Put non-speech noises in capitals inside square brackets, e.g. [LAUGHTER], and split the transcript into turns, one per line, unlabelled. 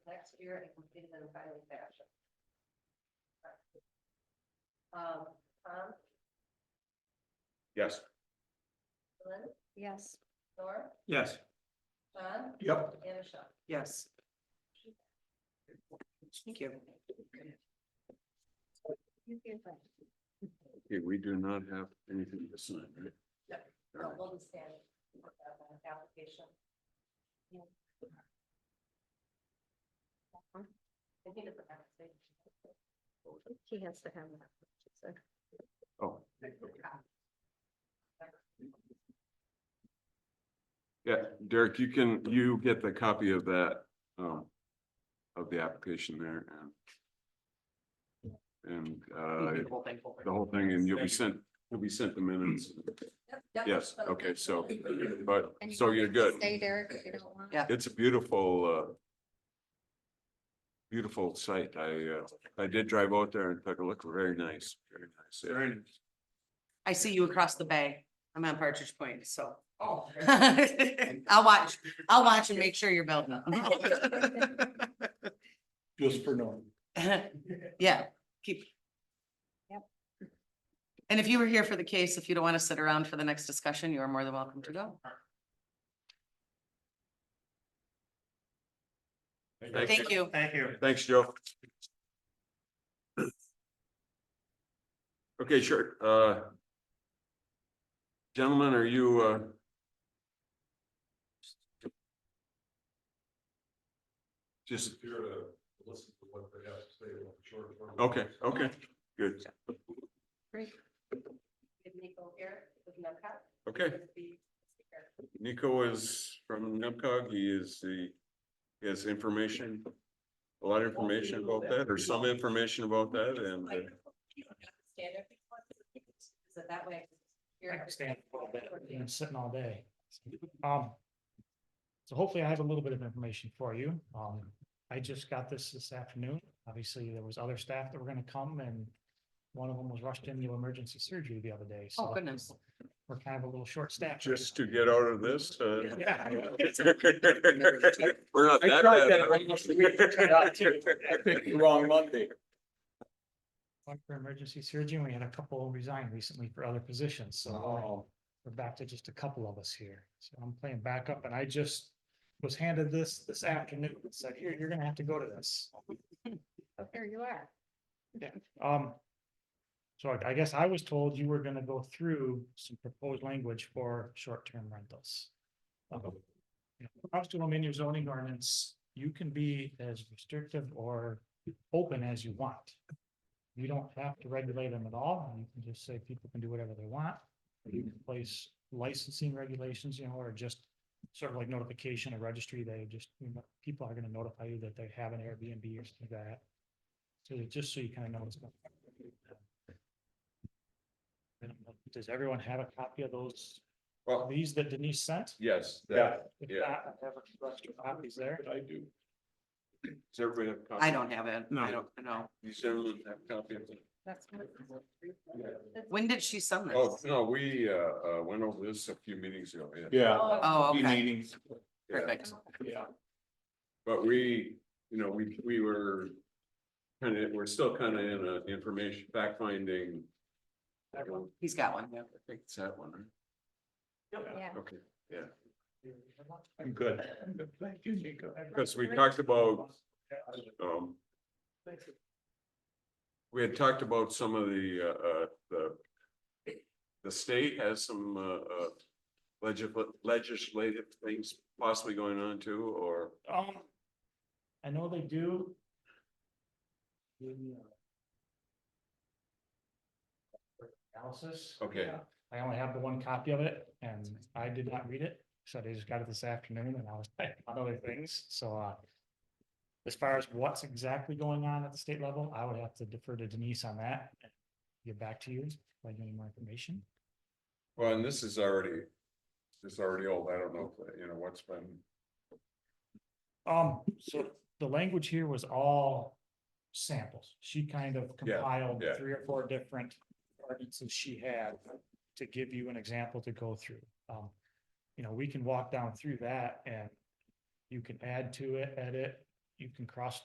year and completed in a timely fashion. Um, Tom,
Yes.
Lynn,
Yes.
Laura,
Yes.
John,
Yep.
and Michelle.
Yes. Thank you.
Okay, we do not have anything to sign, right?
So we'll just stand for that uh, application. I think it's a conversation.
He has to have that.
Oh. Yeah, Derek, you can, you get the copy of that, um, of the application there and and, uh, the whole thing, and you'll be sent, you'll be sent the minutes.
Yep, yep,
Yes,
so-
okay, so, but, so you're good.
Stay, Derek, if you don't want.
Yeah.
It's a beautiful, uh, beautiful site. I, uh, I did drive out there and took a look. Very nice, very nice. yeah.
I see you across the bay. I'm on Partridge Point, so. [LAUGHS]
Oh.
I'll watch, I'll watch and make sure you're building.
[LAUGHS] Just for knowing.
[LAUGHS] Yeah, keep. Yep. And if you were here for the case, if you don't want to sit around for the next discussion, you are more than welcome to go. Thank you.
Thank you.
Thanks, Joe. Okay, sure. Uh, gentlemen, are you, uh, just,
Here to listen to what they have to say about the short term.
okay, okay, good.
Did Nico here with Nemco?
Okay,
Would be speaker.
Nico is from NEMCOG. He is the, he has information, a lot of information about that, or some information about that, and uh,
Stand up. So that way. you're-
I can stand for a little bit, I've been sitting all day. Um, so hopefully I have a little bit of information for you. Um, I just got this this afternoon. Obviously, there was other staff that were gonna come and one of them was rushed into emergency surgery the other day, so.
Oh, goodness.
We're kind of a little short staffed. right
just to get out of this, uh.
now. Yeah.
[LAUGHS] We're not
I
that
tried
bad.
that almost a week ago. I picked the wrong Monday.
One for emergency surgery, and we had a couple resign recently for other positions, so. uh,
Oh.
We're back to just a couple of us here, so I'm playing backup and I just was handed this this afternoon, and said, here, you're gonna have to go to this.
There you are.
Um. So I- I guess I was told you were gonna go through some proposed language for short-term rentals. Um, you know, Comes to them in your zoning ordinance, you can be as restrictive or open as you want. You don't have to regulate them at all, you can just say people can do whatever they want. You can place licensing regulations, you know, or just sort of like notification or registry, they just, you know, people are gonna notify you that they have an Airbnb or something like that. So that- just so you kind of know what's going on. I don't know, Does everyone have a copy of those,
Well,
these that Denise sent?
yes,
Yeah.
that,
If
Yeah.
not, I have a bunch of copies there.
I do.
does everybody have? a copy?
I don't have it. I don't know.
You certainly have a copy of it.
That's. what-
When did she send this?
Oh, no, we, uh, uh, went over this a few meetings ago, yeah.
Yeah.
Oh,
Oh,
Be
okay,
meetings.
Yeah.
perfect.
Yeah.
But we, you know, we, we were kind of, we're still kind of in a information fact finding. I
Everyone-
He's got one.
think it's that one, right?
Yeah.
Okay, yeah,
I'm good. Thank you, Nico.
because we talked about, um, we had talked about some of the, uh, uh, the the state has some, uh, uh, legisl- legislative things possibly going on too, or
Um, I know they do. Give me a- Analysis.
Okay.
Yeah. I only have the one copy of it and I did not read it, so I just got it this afternoon and I was [LAUGHS] like on other things, so uh. As far as what's exactly going on at the state level, I would have to defer to Denise on that. and Get back to you, like any more information.
Well, and this is already, this is already old, I don't know, if, you know, what's been,
Um, so the language here was all samples. She kind of compiled
yeah.
three or four different ordinances she had to give you an example to go through. Um, you know, we can walk down through that and you can add to it, edit, you can cross